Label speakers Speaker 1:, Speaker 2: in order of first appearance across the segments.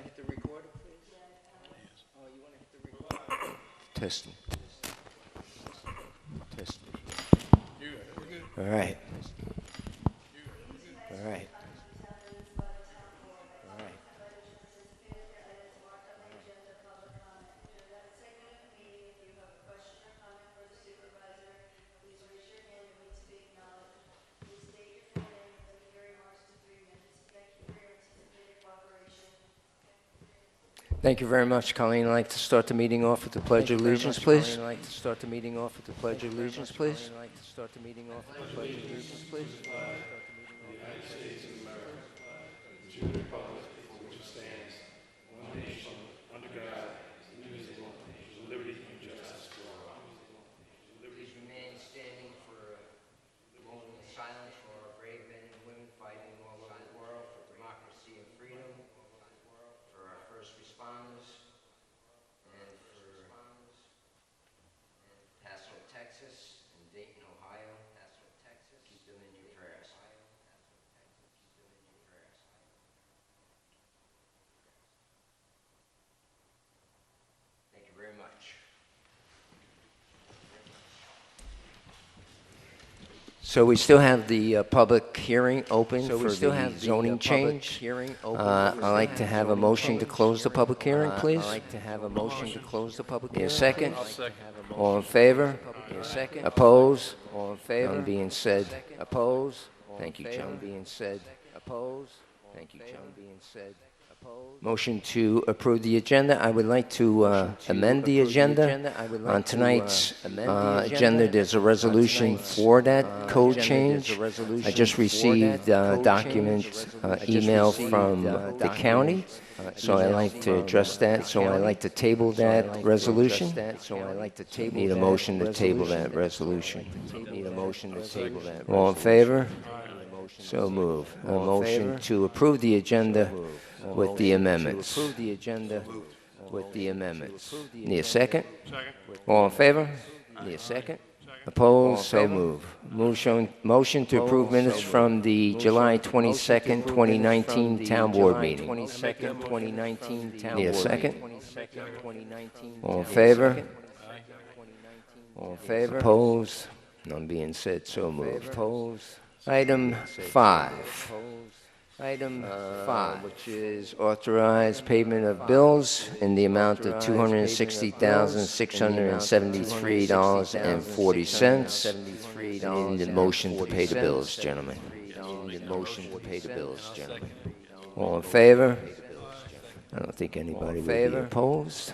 Speaker 1: Oh, Testing. Testing. All right. All right. All right. Thank you very much, Colleen. I'd like to start the meeting off with the Pledge of Allegiance, please. I'd like to start the meeting off with the Pledge of Allegiance, please. I'd like to start the meeting off with the Pledge of Allegiance, please.
Speaker 2: remain standing for a moment of silence for our brave men and women fighting all over the world for democracy and freedom, for our first responders, and for Paso, Texas, and Dayton, Ohio. Paso, Texas. Keep them in your prayers. Keep them in your prayers. Thank you very much.
Speaker 1: So we still have the uh, public hearing open
Speaker 2: So we
Speaker 1: for
Speaker 2: still
Speaker 1: the
Speaker 2: have the, uh,
Speaker 1: zoning
Speaker 2: public
Speaker 1: change.
Speaker 2: hearing open.
Speaker 1: Uh,
Speaker 2: We
Speaker 1: I'd
Speaker 2: still
Speaker 1: like
Speaker 2: have
Speaker 1: to
Speaker 2: the
Speaker 1: have a
Speaker 2: zoning
Speaker 1: motion to
Speaker 2: public
Speaker 1: close the
Speaker 2: hearing
Speaker 1: public hearing,
Speaker 2: open.
Speaker 1: please.
Speaker 2: I'd like to have a motion to close the public
Speaker 1: Need a second?
Speaker 2: hearing.
Speaker 1: All in favor?
Speaker 2: Favor? Need a second?
Speaker 1: Oppose?
Speaker 2: All in
Speaker 1: None
Speaker 2: favor?
Speaker 1: being said.
Speaker 2: Second.
Speaker 1: Oppose?
Speaker 2: All
Speaker 1: Thank
Speaker 2: in
Speaker 1: you,
Speaker 2: favor?
Speaker 1: John. Being said. Oppose? Thank you,
Speaker 2: All in
Speaker 1: John.
Speaker 2: favor?
Speaker 1: Being said. Oppose. Motion to approve the agenda. I would like to uh, amend the agenda. On tonight's uh, agenda, there's a resolution for
Speaker 2: uh,
Speaker 1: that code change. I just received uh, document, uh, email from the county, so I'd like to address that. So I'd like to table that resolution. So I'd like to table Need a motion to table that resolution. Need a motion to table that. All in favor? So move. A motion to approve the agenda with the amendments. Approve the agenda with the amendments. Need a second? All in favor? Need a second? Opposed? So move. Motion, motion to approve minutes from the July 22nd, 2019 Town Board meeting. 22nd, 2019 Town Board. Need a second? All in favor? All in favor? Opposed? None being said, so moved. Opposed? Item five. Item five, which is authorized payment of bills in the amount of two hundred and sixty thousand, six hundred and seventy-three dollars and forty cents. In the motion to pay the bills, gentlemen. In the motion to pay the bills, gentlemen. All in favor? I don't think anybody would be opposed.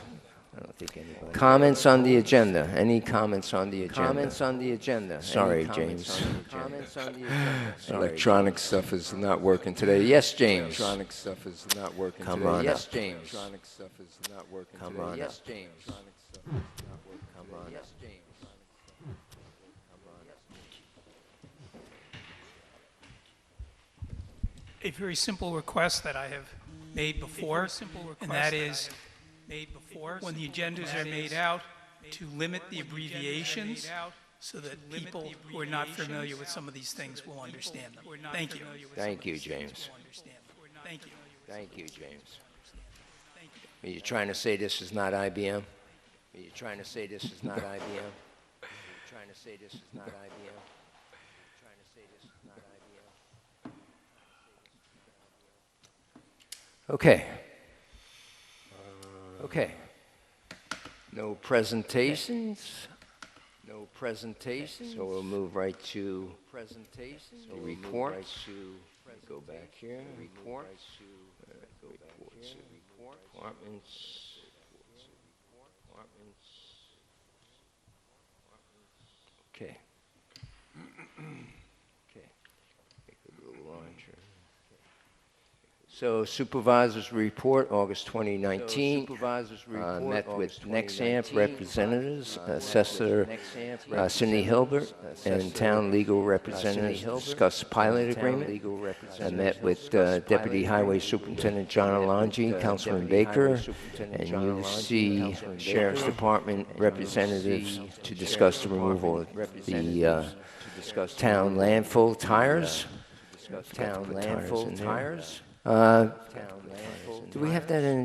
Speaker 1: I don't think anybody. Comments on the agenda? Any comments on the agenda? Comments on the agenda? Sorry, James. Comments on the agenda? Electronic stuff is not working today. Yes, James. Electronic stuff is not working
Speaker 3: Come
Speaker 1: today.
Speaker 3: on
Speaker 1: Yes,
Speaker 3: up.
Speaker 1: James. Electronic stuff is not working
Speaker 3: Come
Speaker 1: today.
Speaker 3: on
Speaker 1: yes,
Speaker 3: up.
Speaker 1: James. Electronic stuff is not working today. Yes, James.
Speaker 4: a very simple request that I have made before, and that is, when the agendas are made out, to limit the abbreviations so that people who are not familiar with some of these things will understand them. Thank you.
Speaker 1: Thank you, James.
Speaker 4: Thank you.
Speaker 1: Thank you, James. Are you trying to say this is not IBM? Are you trying to say this is not IBM? Are you trying to say this is not IBM? Are you Trying to say this is not IBM? Okay. Okay. No presentations? No presentations? So we'll move right to. Presentations? The reports. Go back here. Reports. Reports. Departments. Departments. Okay. Okay. Make a little launcher. So supervisors report, August 2019. Supervisors report. Met with Nexamp representatives, uh, Assessor uh, Cindy Hilbert, and town legal representatives discussed pilot agreement. I met with uh, Deputy Highway Superintendent John Alonji, Councilman Baker, and UC Sheriff's Department representatives to discuss the removal of the uh, town landfill tires. Town landfill tires. Uh, Do we have that in